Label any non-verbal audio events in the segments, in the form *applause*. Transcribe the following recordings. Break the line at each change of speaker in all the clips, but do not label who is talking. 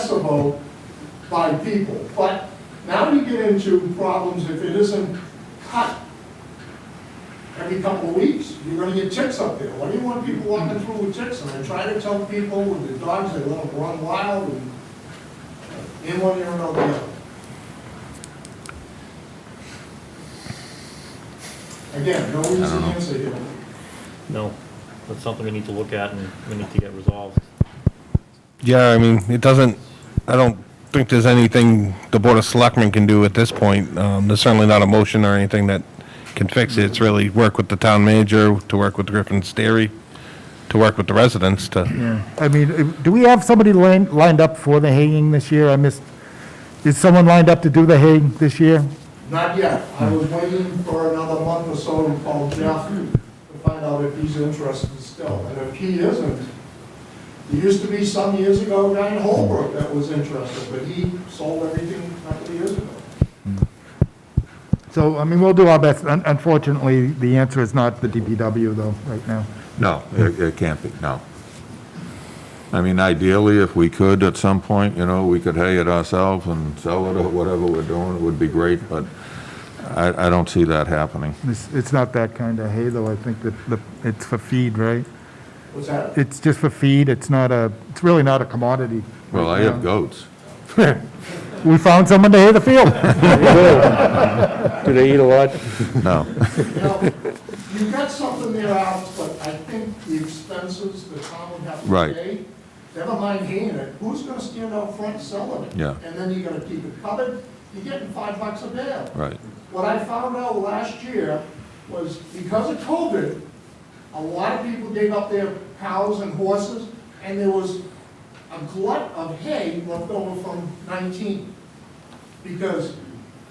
accessible by people. But now you get into problems if it isn't cut every couple of weeks, you're gonna get ticks up there. Why do you want people walking through with ticks? And I try to tell people with the dogs, they let them run wild and in one ear and out the other. Again, no easy answer here.
No, that's something we need to look at and we need to get resolved.
Yeah, I mean, it doesn't, I don't think there's anything the Board of Selectmen can do at this point. Um, There's certainly not a motion or anything that can fix it. It's really work with the town manager, to work with Griffin's Dairy, to work with the residents to,
I mean, if- do we have somebody lined, lined up for the haying this year? I missed, is someone lined up to do the haying this year?
Not yet. I was waiting for another month or so to call Jeff to find out if he's interested still. And if he isn't, there used to be some years ago a guy in Holbrook that was interested, but he sold everything a couple of years ago.
So, I mean, we'll do our best. Un- Unfortunately, the answer is not the DPW though, right now.
No, it, it can't be, no. I mean, ideally, if we could at some point, you know, we could hay it ourselves and sell it or whatever we're doing, it would be great, but I, I don't see that happening.
It's, it's not that kind of hay though. I think that the, it's for feed, right?
What's
*laughs*
that?
It's just for feed. It's not a, it's really not a commodity.
Well, I have goats.
We found someone to hay the field. *laughs*
Do they eat a lot?
No,
You know, you've got something there, Alex, but I think the expenses the town would have to
Right.
pay, never mind paying it, who's gonna stand out front selling it?
Yeah.
And then you're gonna keep it covered, you're getting five bucks a bale.
*laughs* right,
What I found out last year was because of COVID, a lot of people gave up their cows and horses, and there was a glut of hay left over from nineteen. Because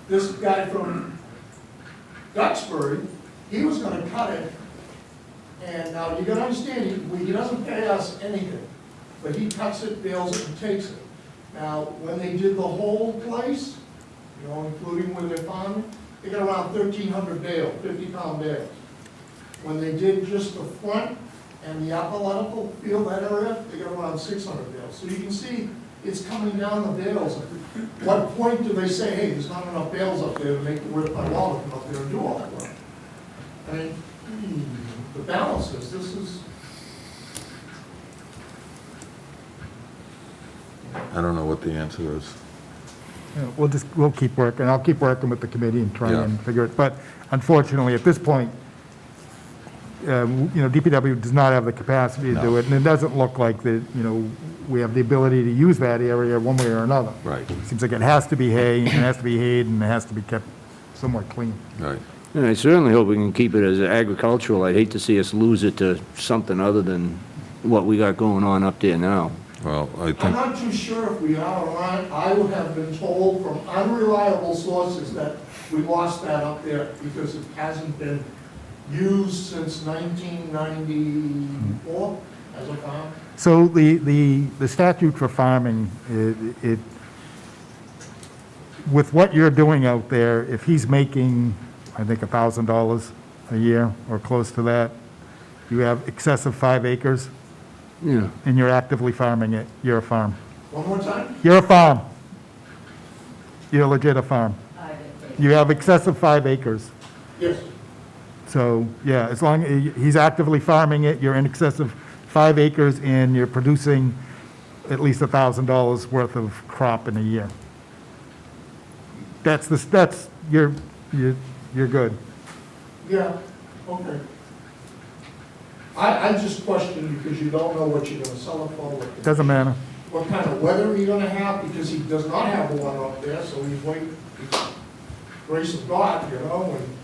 this guy from Duxbury, he was gonna cut it, and now you gotta understand, he, we- he doesn't pay us anything, but he cuts it, bales it, and takes it. Now, when they did the whole place, you know, including where they're farming, they got around thirteen hundred bale, fifty pound bales. When they did just the front and the athletical field, that area, they got around six hundred bales. So you can see, it's coming down the bales. What point do they say, hey, there's not enough bales up there to make it worth my while to come up there and do all that work? I mean, hmm, the balance is, this is,
I don't know what the answer is.
Yeah, We'll just, we'll keep working, I'll keep working with the committee and try
Yeah.
and figure it, but unfortunately, at this point, uh, w- you know, DPW does not have the capacity to do
No.
it, and it doesn't look like that, you know, we have the ability to use that area one way or another.
Right.
Seems like it has to be hay, it has to be hayed, and it has to be kept somewhat clean.
Right,
And I certainly hope we can keep it as agricultural. I'd hate to see us lose it to something other than what we got going on up there now.
well, I
I'm
think,
not too sure if we are or aren't. I have been told from unreliable sources that we lost that up there because it hasn't been used since 1994 as a farm.
So the, the, the statute for farming, it, it, with what you're doing out there, if he's making, I think, thousand dollars a year or close to that, you have excess of five acres
Yeah.
and you're actively farming it, you're a farm.
One more time?
You're a farm. You're legit a farm. You have excess of five acres.
Yes.
So, yeah, as long, eh, he's actively farming it, you're in excess of five acres, and you're producing at least $1,000 worth of crop in a year. That's the, that's, you're, you're, you're good.
Yeah, okay. I, I just question because you don't know what you're gonna sell it for, what
Doesn't matter.
what kind of weather you're gonna have, because he does not have one up there, so he's waiting, grace of God, you know, and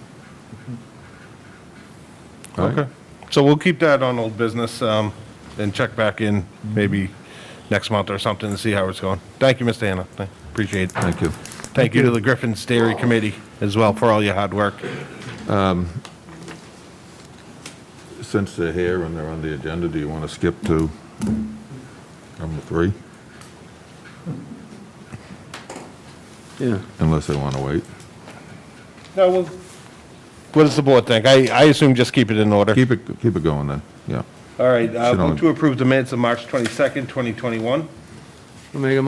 okay,
so we'll keep that on old business um, and check back in maybe next month or something to see how it's going. Thank you, Mr. Hannah. Thank- Appreciate it.
thank you.
Thank you to the Griffin's Dairy Committee as well for all your hard work.
Since they're here and they're on the agenda, do you want to skip to number three?
Yeah.
Unless they want to wait.
No, well, what does the board think? I, I assume just keep it in order.
Keep it, keep it going then, yeah.
All right, uh,
Sit on
vote
it.
to approve the minutes of March 22nd, 2021.
I'll Make a